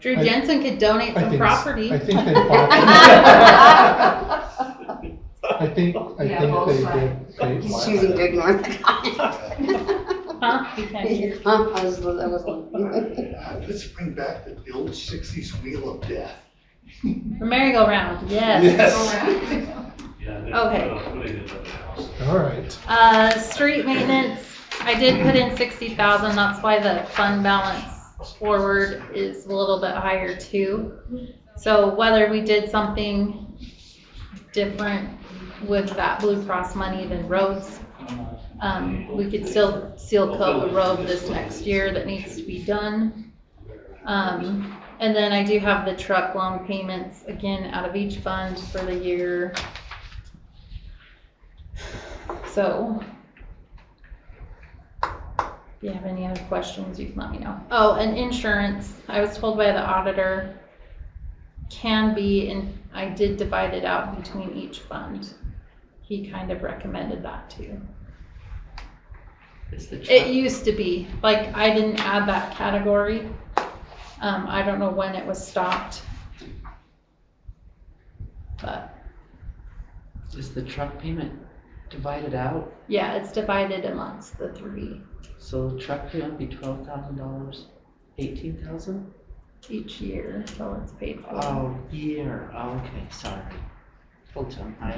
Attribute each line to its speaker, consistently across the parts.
Speaker 1: Drew
Speaker 2: I-
Speaker 1: Jensen could donate
Speaker 2: I
Speaker 1: some
Speaker 2: think s-
Speaker 1: property.
Speaker 2: I think they bought. I think, I
Speaker 3: Yeah,
Speaker 2: think
Speaker 3: both
Speaker 2: they did. they-
Speaker 4: He's choosing to ignore the comment.
Speaker 1: Huh? You can't-
Speaker 4: Your comment was- that was one.
Speaker 5: Let's bring back the old sixties wheel of death.
Speaker 1: The merry-go-round, yes.
Speaker 5: Yes.
Speaker 6: Yeah. they-
Speaker 1: Okay.
Speaker 6: uh, they did that house.
Speaker 2: All right,
Speaker 1: Uh, street maintenance, I did put in sixty thousand, that's why the fund balance forward is a little bit higher too. So whether we did something different with that Blue Cross money than roads, um, we could still seal coat the road this next year that needs to be done. Um, and then I do have the truck loan payments, again, out of each fund for the year. So. If you have any other questions, you can let me know. Oh, and insurance, I was told by the auditor, can be, and I did divide it out between each fund. He kind of recommended that too.
Speaker 7: Is the truck,
Speaker 1: It used to be, like, I didn't add that category. Um, I don't know when it was stopped. But,
Speaker 7: is the truck payment divided out?
Speaker 1: yeah, it's divided amongst the three
Speaker 7: So the truck payment would be twelve thousand dollars, eighteen thousand?
Speaker 1: each year, so it's paid for.
Speaker 7: Oh, year, oh, okay, sorry. Full-time, I,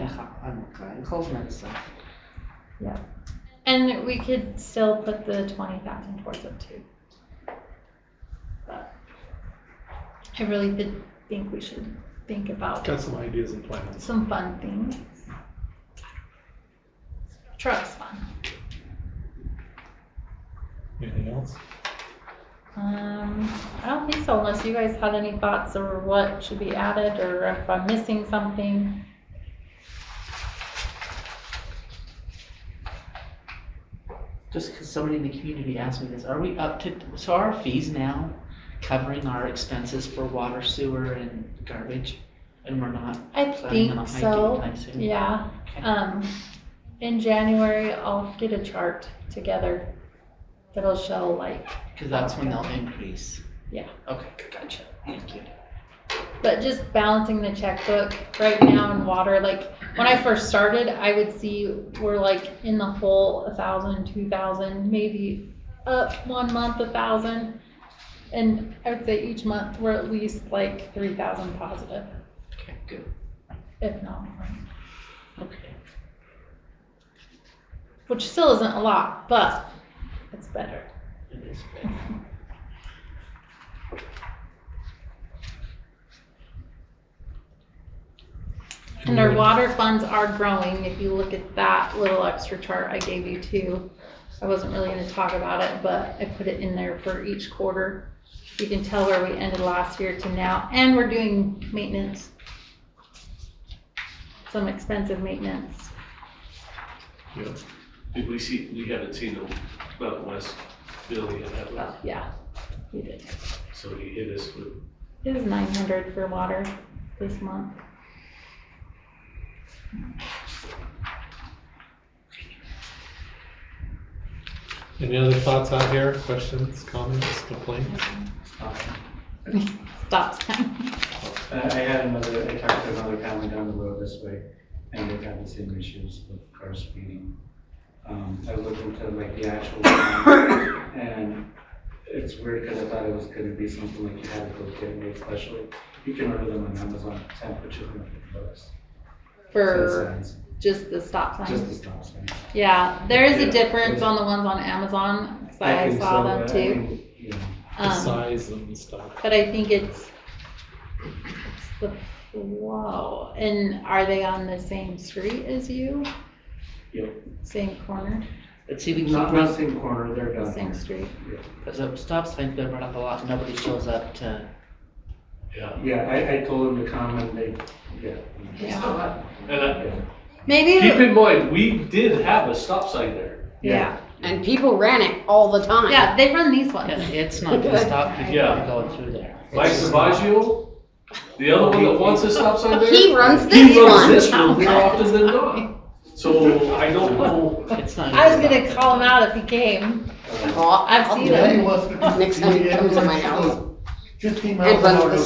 Speaker 7: I'm, I'm cold medicine.
Speaker 1: And we could still put the twenty thousand towards it too. But I really did think we should think about
Speaker 2: got some ideas and plans.
Speaker 1: some fun things. Truck's fun.
Speaker 2: Anything else?
Speaker 1: Um, I don't think so unless you guys had any thoughts or what should be added or if I'm missing something.
Speaker 7: Just 'cause somebody in the community asked me this, are we up to, so are our fees now covering our expenses for water, sewer, and garbage? And we're not
Speaker 1: I
Speaker 7: planning on a
Speaker 1: think
Speaker 7: hike
Speaker 1: so,
Speaker 7: anytime soon?
Speaker 1: yeah.
Speaker 7: Okay.
Speaker 1: Um, in January, I'll get a chart together that'll show like,
Speaker 7: Cause that's when they'll increase.
Speaker 1: Yeah.
Speaker 7: Okay, gotcha, thank you.
Speaker 1: but just balancing the checkbook right now in water, like when I first started, I would see we're like in the hole a thousand, two thousand, maybe up one month a thousand. And I would say each month we're at least like three thousand positive,
Speaker 7: Okay, good,
Speaker 1: if not more,
Speaker 7: okay.
Speaker 1: which still isn't a lot, but it's better.
Speaker 7: It is good.
Speaker 1: And
Speaker 8: Mm-hmm.
Speaker 1: our water funds are growing. If you look at that little extra chart I gave you too, I wasn't really gonna talk about it, but I put it in there for each quarter. You can tell where we ended last year to now, and we're doing maintenance. Some expensive maintenance.
Speaker 2: Yep.
Speaker 6: Did we see, we haven't seen the Mountain West bill yet, have we?
Speaker 1: Well, yeah, we did.
Speaker 6: so he hit us with,
Speaker 1: It was nine hundred for water this month.
Speaker 2: Any other thoughts out here, questions, comments, complaints?
Speaker 8: Uh,
Speaker 1: Stop.
Speaker 8: I I had another, I talked to another family down the road this way, and they've had the same issues with car speeding. Um, I looked into like the actual, time, and it's weird because I thought it was gonna be something like you had to go get made specially. You can order them on Amazon, ten for two hundred bucks. Ten
Speaker 1: For
Speaker 8: cents,
Speaker 1: just the stop signs.
Speaker 8: Just the stop sign.
Speaker 1: Yeah, there is a
Speaker 8: Yeah.
Speaker 1: difference on the ones on Amazon, 'cause I
Speaker 8: think
Speaker 1: saw
Speaker 8: so,
Speaker 1: them
Speaker 8: but I
Speaker 1: too.
Speaker 8: think, you know,
Speaker 2: The
Speaker 1: Um,
Speaker 2: size and stuff.
Speaker 1: but I think it's, it's the flow. And are they on the same street as you?
Speaker 8: Yep.
Speaker 1: Same corner,
Speaker 7: But see, we keep
Speaker 8: Not on the
Speaker 7: running,
Speaker 8: same corner, they're down
Speaker 1: same
Speaker 8: here.
Speaker 1: street?
Speaker 7: because the stop sign's been run up a lot, and nobody shows up to,
Speaker 6: yeah.
Speaker 8: Yeah, I, I told them to come and they, yeah.
Speaker 1: Yeah.
Speaker 6: And I,
Speaker 1: Maybe,
Speaker 6: keep
Speaker 1: it-
Speaker 6: in mind, we did have a stop sign there.
Speaker 1: yeah,
Speaker 4: And people ran it all the time.
Speaker 1: yeah, they run these
Speaker 7: Yeah,
Speaker 1: ones.
Speaker 7: it's not gonna stop people
Speaker 6: Yeah.
Speaker 7: from going through there. It's
Speaker 6: Mike
Speaker 7: just-
Speaker 6: Savaggio, the other one that wants a stop sign there.
Speaker 4: He runs this
Speaker 6: He runs
Speaker 4: one.
Speaker 6: this one more often than not. So I don't know.
Speaker 7: It's not.
Speaker 1: I was gonna
Speaker 7: stop
Speaker 1: call him
Speaker 7: them.
Speaker 1: out if he came.
Speaker 4: Well,
Speaker 8: Uh,
Speaker 1: I've
Speaker 4: I'll
Speaker 1: seen
Speaker 4: do
Speaker 1: them.
Speaker 4: it. Next time he comes to my house.
Speaker 5: Fifteen
Speaker 4: And
Speaker 5: miles an
Speaker 4: runs
Speaker 5: hour
Speaker 4: the